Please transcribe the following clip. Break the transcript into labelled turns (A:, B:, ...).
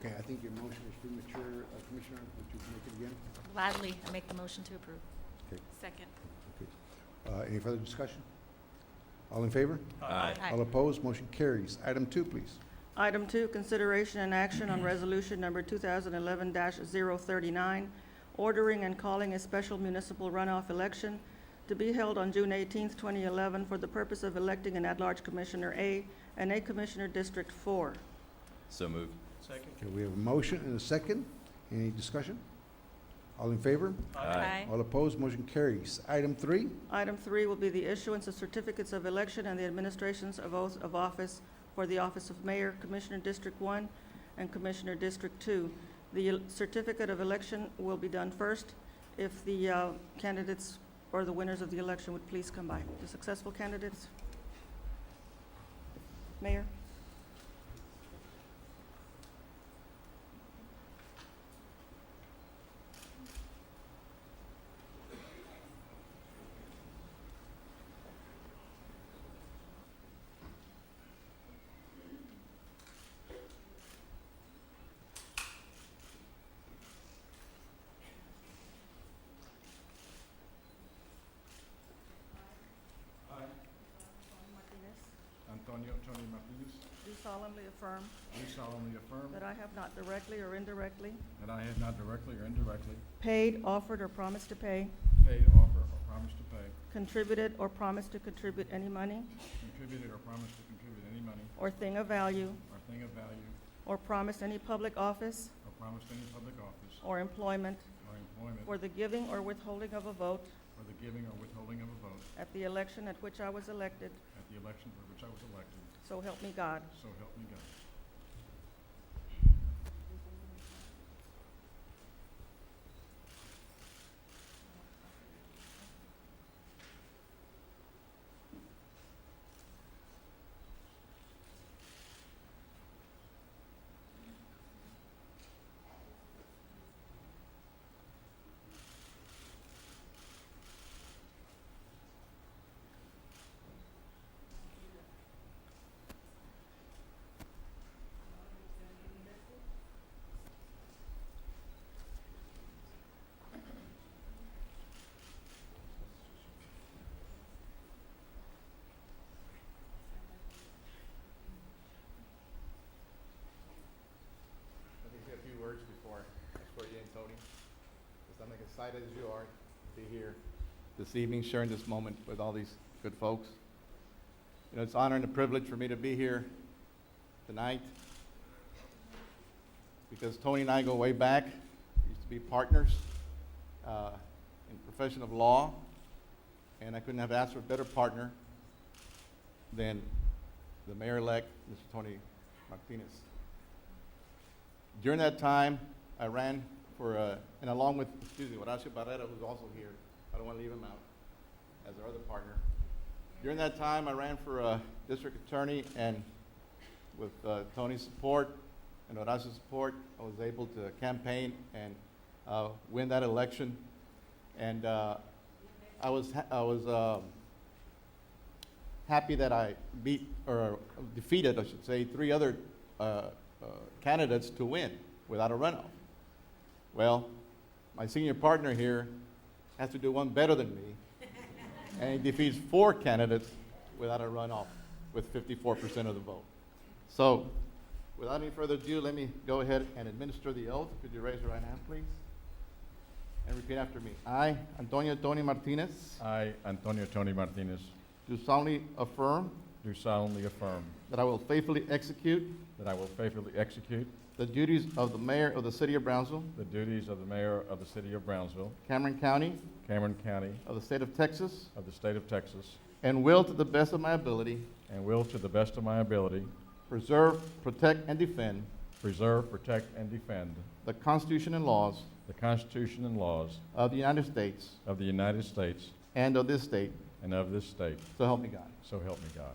A: Okay, I think your motion was premature. Uh, Commissioner, would you make it again?
B: Gladly, I make the motion to approve.
A: Okay.
B: Second.
A: Okay. Uh, Any further discussion? All in favor?
C: Aye.
A: All opposed? Motion carries. Item two, please.
D: Item two, consideration and action on resolution number 2011-039, ordering and calling a special municipal runoff election to be held on June 18, 2011, for the purpose of electing an at-large Commissioner A and a Commissioner District 4.
C: So moved.
E: Second.
A: Okay, we have a motion and a second. Any discussion? All in favor?
B: Aye.
A: All opposed? Motion carries. Item three,
D: Item three will be the issuance of certificates of election and the administrations of oath of office for the office of mayor, Commissioner District One, and Commissioner District Two. The el- certificate of election will be done first. If the uh, candidates or the winners of the election would please come by. The successful candidates? Mayor?
E: Antonio Tony Martinez,
D: Do solemnly affirm
E: do solemnly affirm
D: that I have not directly or indirectly
E: that I have not directly or indirectly
D: paid, offered, or promised to pay,
E: paid, offered, or promised to pay,
D: contributed, or promised to contribute any money
E: contributed, or promised to contribute any money
D: or thing of value
E: or thing of value,
D: or promised any public office
E: or promised any public office
D: or employment
E: or employment
D: for the giving or withholding of a vote
E: for the giving or withholding of a vote
D: at the election at which I was elected,
E: at the election for which I was elected,
D: so help me God.
E: so help me God.
F: Let me say a few words before I swear you in, Tony. Because I'm excited as you are to be here this evening, sharing this moment with all these good folks. You know, it's an honor and a privilege for me to be here tonight because Tony and I go way back. We used to be partners uh, in the profession of law, and I couldn't have asked for a better partner than the mayor-elect, Mr. Tony Martinez. During that time, I ran for, uh, and along with, excuse me, Horacio Barrera, who's also here, I don't want to leave him out, as our other partner. During that time, I ran for uh, district attorney, and with uh, Tony's support and Horacio's support, I was able to campaign and uh, win that election. And uh, I was, ha- I was um, happy that I beat, or defeated, I should say, three other uh, uh, candidates to win without a runoff. Well, my senior partner here has to do one better than me, and he defeats four candidates without a runoff with 54% of the vote. So, without any further ado, let me go ahead and administer the oath. Could you raise your right hand, please? And repeat after me. I, Antonio Tony Martinez,
E: I, Antonio Tony Martinez,
F: do solemnly affirm
E: do solemnly affirm
F: that I will faithfully execute
E: that I will faithfully execute
F: the duties of the mayor of the city of Brownsville,
E: the duties of the mayor of the city of Brownsville,
F: Cameron County,
E: Cameron County,
F: of the state of Texas,
E: of the state of Texas,
F: and will, to the best of my ability,
E: and will, to the best of my ability,
F: preserve, protect, and defend
E: preserve, protect, and defend
F: the Constitution and laws
E: the Constitution and laws
F: of the United States
E: of the United States
F: and of this state,
E: and of this state.
F: so help me God.
E: So help me God.